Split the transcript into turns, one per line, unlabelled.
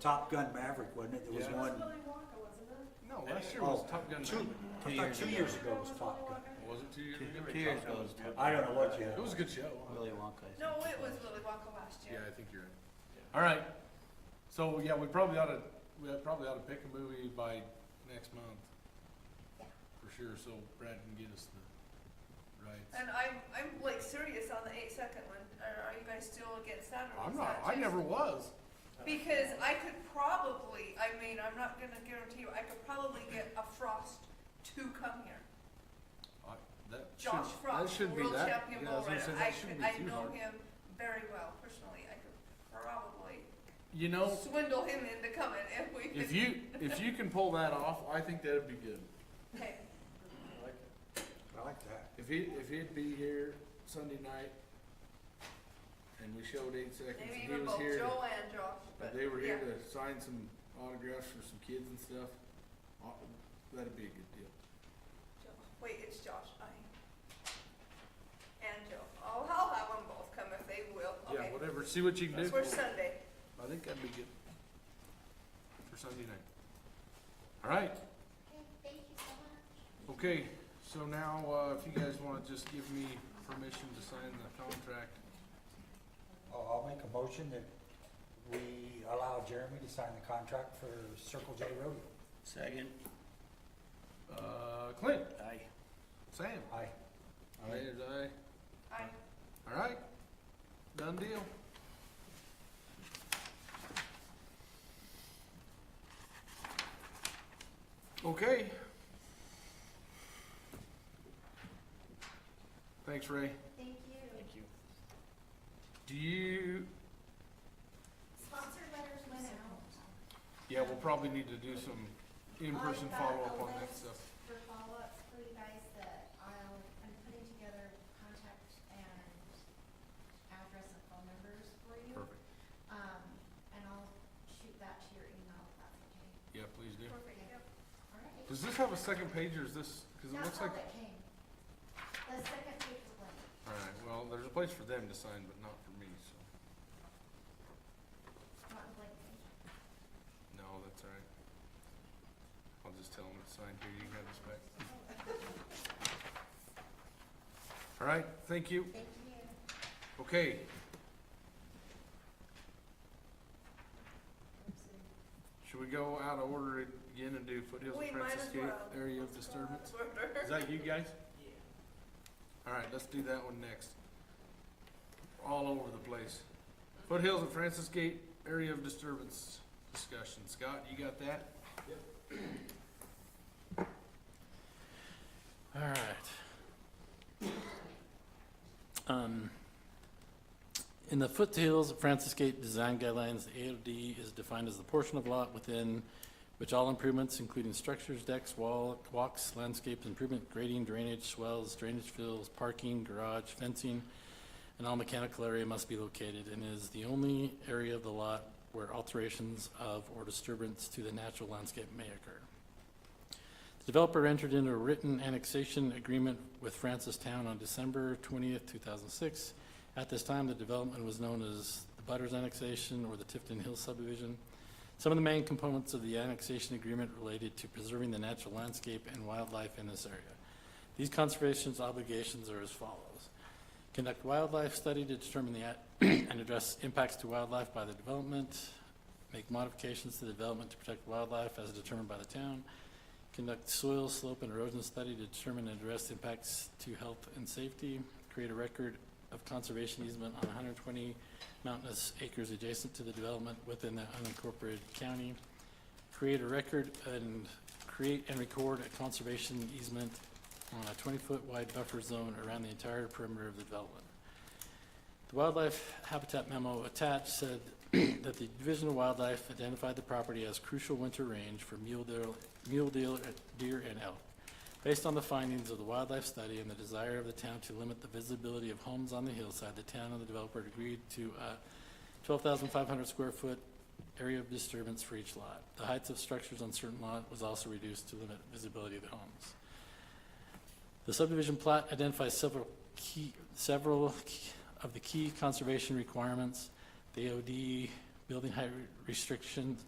Top Gun Maverick, wasn't it? There was
Yeah.
one,
Willy Wonka, wasn't it?
No, last year was
Oh,
Top Gun.
two,
Maverick.
I thought
years
two
ago.
years ago was Top Gun.
Was it two years ago?
Two years ago was Top
I don't know what you
It was a good show.
Willy Wonka. I
No,
think
it was Willy Wonka last
Yeah,
year.
I think you're right. All right, so, yeah, we probably oughta, we probably oughta pick a movie by next month. For sure, so Brad can get us the rights.
And I'm, I'm like serious on the eight second one. Are, are you guys still against that or
I'm
is
not,
that
I
just-
never was.
Because I could probably, I mean, I'm not gonna guarantee you, I could probably get a Frost to come here.
I- that
Josh
shouldn't- that
Frost,
shouldn't be
world
that-
champion
yeah, I was
bull
gonna
rider.
say, that
I,
shouldn't be
could- I
too
know
hard.
him very well personally. I could probably
You know,
swindle him into coming if we could.
if you, if you can pull that off, I think that'd be good.
Okay.
I like that.
If he, if he'd be here Sunday night, and we showed eight seconds,
Maybe
and he
even
was
both
here.
Joel and Josh,
If
but
they were
yeah.
here to sign some autographs for some kids and stuff, aw- that'd be a good deal.
Joe- Wait, it's Josh, I. And Joe. I'll, I'll have them both come if they will, okay?
Yeah, whatever, see what you can do.
We're Sunday.
I think that'd be good. For Sunday night. All right,
Okay, thank you so much.
okay, so now, uh, if you guys wanna just give me permission to sign the contract.
Oh, I'll, I'll make a motion that we allow Jeremy to sign the contract for Circle J Rodeo.
Second.
Uh, Clint,
Aye.
Sam,
Aye.
aye, is aye,
I,
all right, done deal. Okay. Thanks, Ray.
Thank you.
Thank you.
Do you,
Sponsor letters went out.
yeah, we'll probably need to do some in-person
I've Um, got
follow-up
a
on that
list
stuff.
For follow-ups for you guys that I'll, I'm putting together contact and address and phone numbers for you.
Perfect.
Um, and I'll shoot that to your email if that's okay.
Yeah, please do.
perfect, yep.
All right.
Does this have a second page or is this, cause it looks
That's
like,
all that came. The second page was blank.
alright, well, there's a place for them to sign, but not for me, so,
Not the blank page.
no, that's alright. I'll just tell them it's signed here, you can have this back. Alright, thank you.
Thank you.
Okay, should we go out of order again and do Foothills
We
and
might
Princess
as
Gate
well.
area of disturbance? Is
Order.
that you guys? Yeah. All right, let's do that one next. All over the place. Foothills and Francis Gate area of disturbance discussion. Scott, you got that?
All right. Um, In the foothills of Francis Gate Design Guidelines, the AOD is defined as the portion of lot within which all improvements, including structures, decks, wall, walks, landscapes, improvement, grading, drainage, swells, drainage fields, parking, garage, fencing, and all mechanical area must be located, and is the only area of the lot where alterations of or disturbance to the natural landscape may occur. The developer entered into a written annexation agreement with Francis Town on December twentieth, two thousand six. At this time, the development was known as the Butters Annexation or the Tifton Hill subdivision. Some of the main components of the annexation agreement related to preserving the natural landscape and wildlife in this area. These conservation obligations are as follows. Conduct wildlife study to determine the, at- and address impacts to wildlife by the development. Make modifications to the development to protect wildlife as determined by the town. Conduct soil, slope, and erosion study to determine and address impacts to health and safety. Create a record of conservation easement on 120 mountainous acres adjacent to the development within the unincorporated county. Create a record and create and record a conservation easement on a 20-foot wide buffer zone around the entire perimeter of the development. The wildlife habitat memo attached said that the Division of Wildlife identified the property as crucial winter range for mule deer, mule deer, deer and elk. Based on the findings of the wildlife study and the desire of the town to limit the visibility of homes on the hillside, the town and the developer agreed to a twelve thousand five hundred square foot area of disturbance for each lot. The heights of structures on certain lot was also reduced to limit visibility of the homes. The subdivision plat identifies several key, several key- of the key conservation requirements. The OD building height re- restriction